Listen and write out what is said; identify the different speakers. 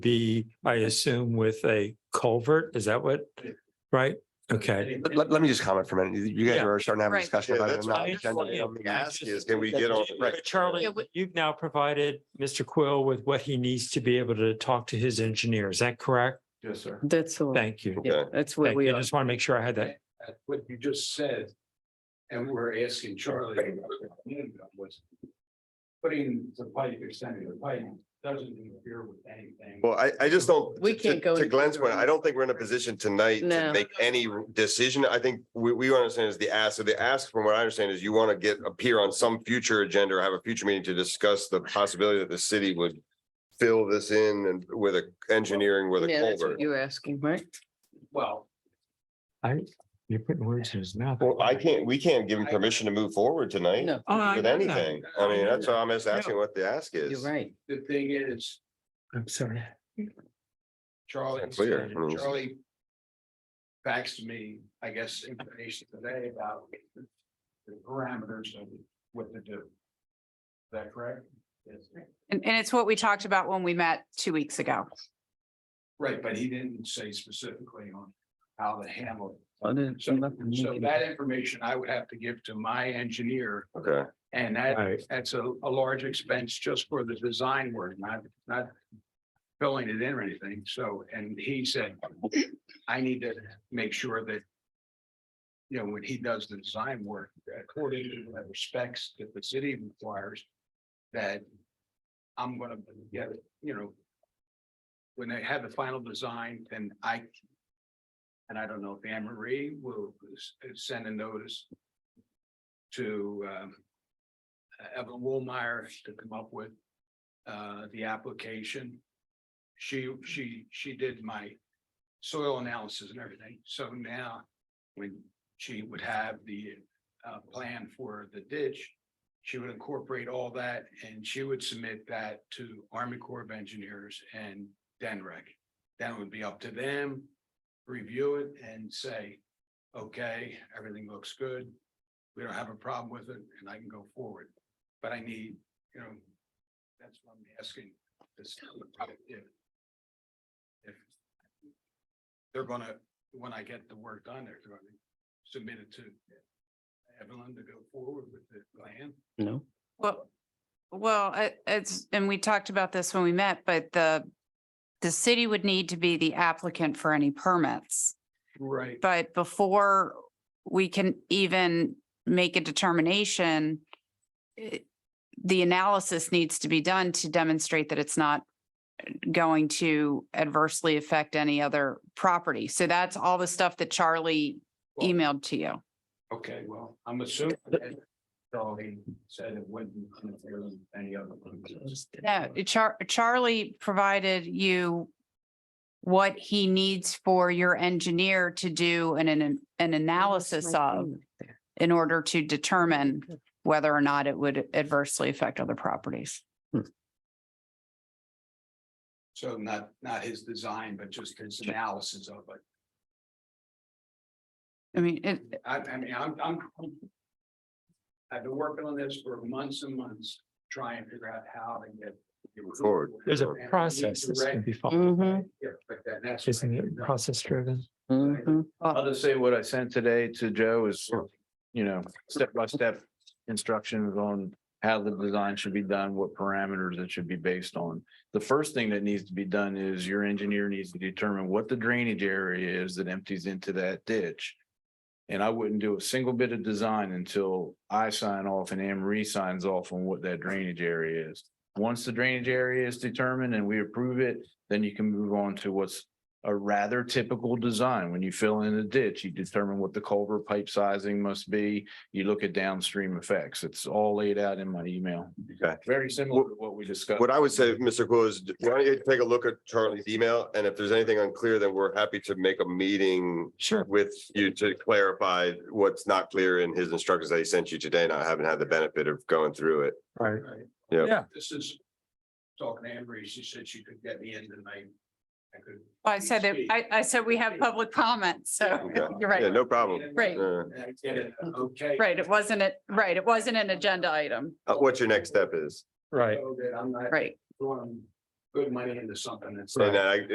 Speaker 1: be, I assume, with a culvert? Is that what? Right? Okay.
Speaker 2: Let, let- let me just comment for a minute. You guys
Speaker 1: Yeah.
Speaker 2: are starting to have a
Speaker 3: Right.
Speaker 2: discussion
Speaker 4: Yeah,
Speaker 2: about it.
Speaker 4: that's
Speaker 2: and not
Speaker 4: fine.
Speaker 2: agenda
Speaker 1: Yeah.
Speaker 2: item.
Speaker 4: ask is, can we get on- right.
Speaker 1: Charlie,
Speaker 3: Yeah, we-
Speaker 1: you've now provided Mr. Quill with what he needs to be able to talk to his engineer. Is that correct?
Speaker 5: Yes, sir.
Speaker 6: That's all.
Speaker 1: Thank you.
Speaker 6: Yeah,
Speaker 4: Okay.
Speaker 6: that's where
Speaker 1: Thank
Speaker 6: we
Speaker 1: you. I
Speaker 6: are.
Speaker 1: just want to make sure I had that.
Speaker 5: At What you just said, and we were asking Charlie about was putting the pipe, extending the pipe doesn't interfere with anything.
Speaker 4: Well, I, I just don't.
Speaker 6: We
Speaker 4: to-
Speaker 6: can't go
Speaker 4: To
Speaker 6: any
Speaker 4: Glenn's point,
Speaker 6: further.
Speaker 4: I don't think we're in a position tonight
Speaker 6: No.
Speaker 4: to make any decision. I think we, we understand is the ask. So the ask from what I understand is you want to get, appear on some future agenda or have a future meeting to discuss the possibility that the city would fill this in and with a engineering with a
Speaker 6: Yeah, that's
Speaker 4: culvert.
Speaker 6: what you're asking, right?
Speaker 5: Well,
Speaker 1: I, you're putting words in his mouth.
Speaker 4: Well, I can't, we can't give him permission to move forward tonight
Speaker 6: No,
Speaker 1: Oh, I
Speaker 4: with
Speaker 1: know that.
Speaker 4: anything. I mean, that's why I'm just asking what the ask
Speaker 6: you're
Speaker 4: is.
Speaker 6: right.
Speaker 5: the thing is,
Speaker 1: I'm sorry.
Speaker 5: Charlie,
Speaker 4: It's clear. I mean,
Speaker 5: Charlie faxed me, I guess, information today about the parameters of what to do. Is that correct? Yes.
Speaker 3: And, and it's what we talked about when we met two weeks ago.
Speaker 5: Right, but he didn't say specifically on how to handle it.
Speaker 6: I didn't-
Speaker 5: So,
Speaker 6: I'm not gonna
Speaker 5: so
Speaker 3: Mm-hmm.
Speaker 6: make it.
Speaker 5: that information I would have to give to my engineer
Speaker 4: Okay,
Speaker 5: and
Speaker 1: All
Speaker 5: that,
Speaker 1: right.
Speaker 5: that's a, a large expense just for the design work, not, not. Filling it in or anything. So, and he said, I need to make sure that. You know, when he does the design work, according to the specs that the city requires, that. I'm gonna get, you know. When they have the final design, then I. And I don't know if Anne Marie will s- send a notice. To um. Evan Woolmeyer to come up with uh, the application. She, she, she did my soil analysis and everything. So now when she would have the uh, plan for the ditch, she would incorporate all that and she would submit that to Army Corps of Engineers and DENREC. Then it would be up to them, review it and say, okay, everything looks good. We don't have a problem with it and I can go forward but I need, you know, that's what I'm asking. this company if- If they're gonna, when I get the work done, they're gonna submit it to Evelyn to go forward with the plan.
Speaker 6: No,
Speaker 3: Well, well, it- it's, and we talked about this when we met, but the, the city would need to be the applicant for any permits.
Speaker 5: Right.
Speaker 3: But before we can even make a determination, it- the analysis needs to be done to demonstrate that it's not going to adversely affect any other property. So that's all the stuff that Charlie emailed to you.
Speaker 5: Okay, well, I'm assuming that Charlie said it wouldn't interfere with any other. plans.
Speaker 3: No, Char- Charlie provided you what he needs for your engineer to do an, an, an analysis of in order to determine whether or not it would adversely affect other properties.
Speaker 5: So not, not his design, but just his analysis of it.
Speaker 3: I mean, it,
Speaker 5: I, I mean, I'm, I'm. I've been working on this for months and months, trying to figure out how to get.
Speaker 4: Forward.
Speaker 1: There's a
Speaker 5: And we need
Speaker 1: process
Speaker 5: to
Speaker 1: that's going to
Speaker 5: rec-
Speaker 1: be followed.
Speaker 6: Mm-hmm,
Speaker 5: Yeah, but that- that's.
Speaker 1: Isn't it process driven?
Speaker 6: mm-hmm.
Speaker 7: I'll just say what I sent today to Joe is, you know, step by step instructions on how the design should be done, what parameters it should be based on. The first thing that needs to be done is your engineer needs to determine what the drainage area is that empties into that ditch. And I wouldn't do a single bit of design until I sign off and Anne Marie signs off on what that drainage area is. Once the drainage area is determined and we approve it, then you can move on to what's a rather typical design. When you fill in a ditch, you determine what the culvert pipe sizing must be. You look at downstream effects. It's all laid out in my email.
Speaker 4: okay.
Speaker 7: Very similar to what we discussed.
Speaker 4: What I would say, Mr. Quill, is why don't you take a look at Charlie's email, and if there's anything unclear, then we're happy to make a meeting
Speaker 1: Sure.
Speaker 4: with you to clarify what's not clear in his instructions that he sent you today, and I haven't had the benefit of going through it.
Speaker 1: Right.
Speaker 5: Right.
Speaker 4: Yeah.
Speaker 1: Yeah.
Speaker 5: This is talking to Amber, she said she could get me in tonight. I could.
Speaker 3: I said that, I, I said we have public comments, so you're
Speaker 4: Yeah,
Speaker 3: right.
Speaker 4: no problem.
Speaker 3: Right.
Speaker 4: Uh,
Speaker 5: And I get it, okay.
Speaker 3: Right, it wasn't it, right, it wasn't an agenda item,
Speaker 4: uh, What your next step is.
Speaker 1: Right.
Speaker 5: So that I'm not
Speaker 3: right?
Speaker 5: going good money into something that's.
Speaker 4: And I,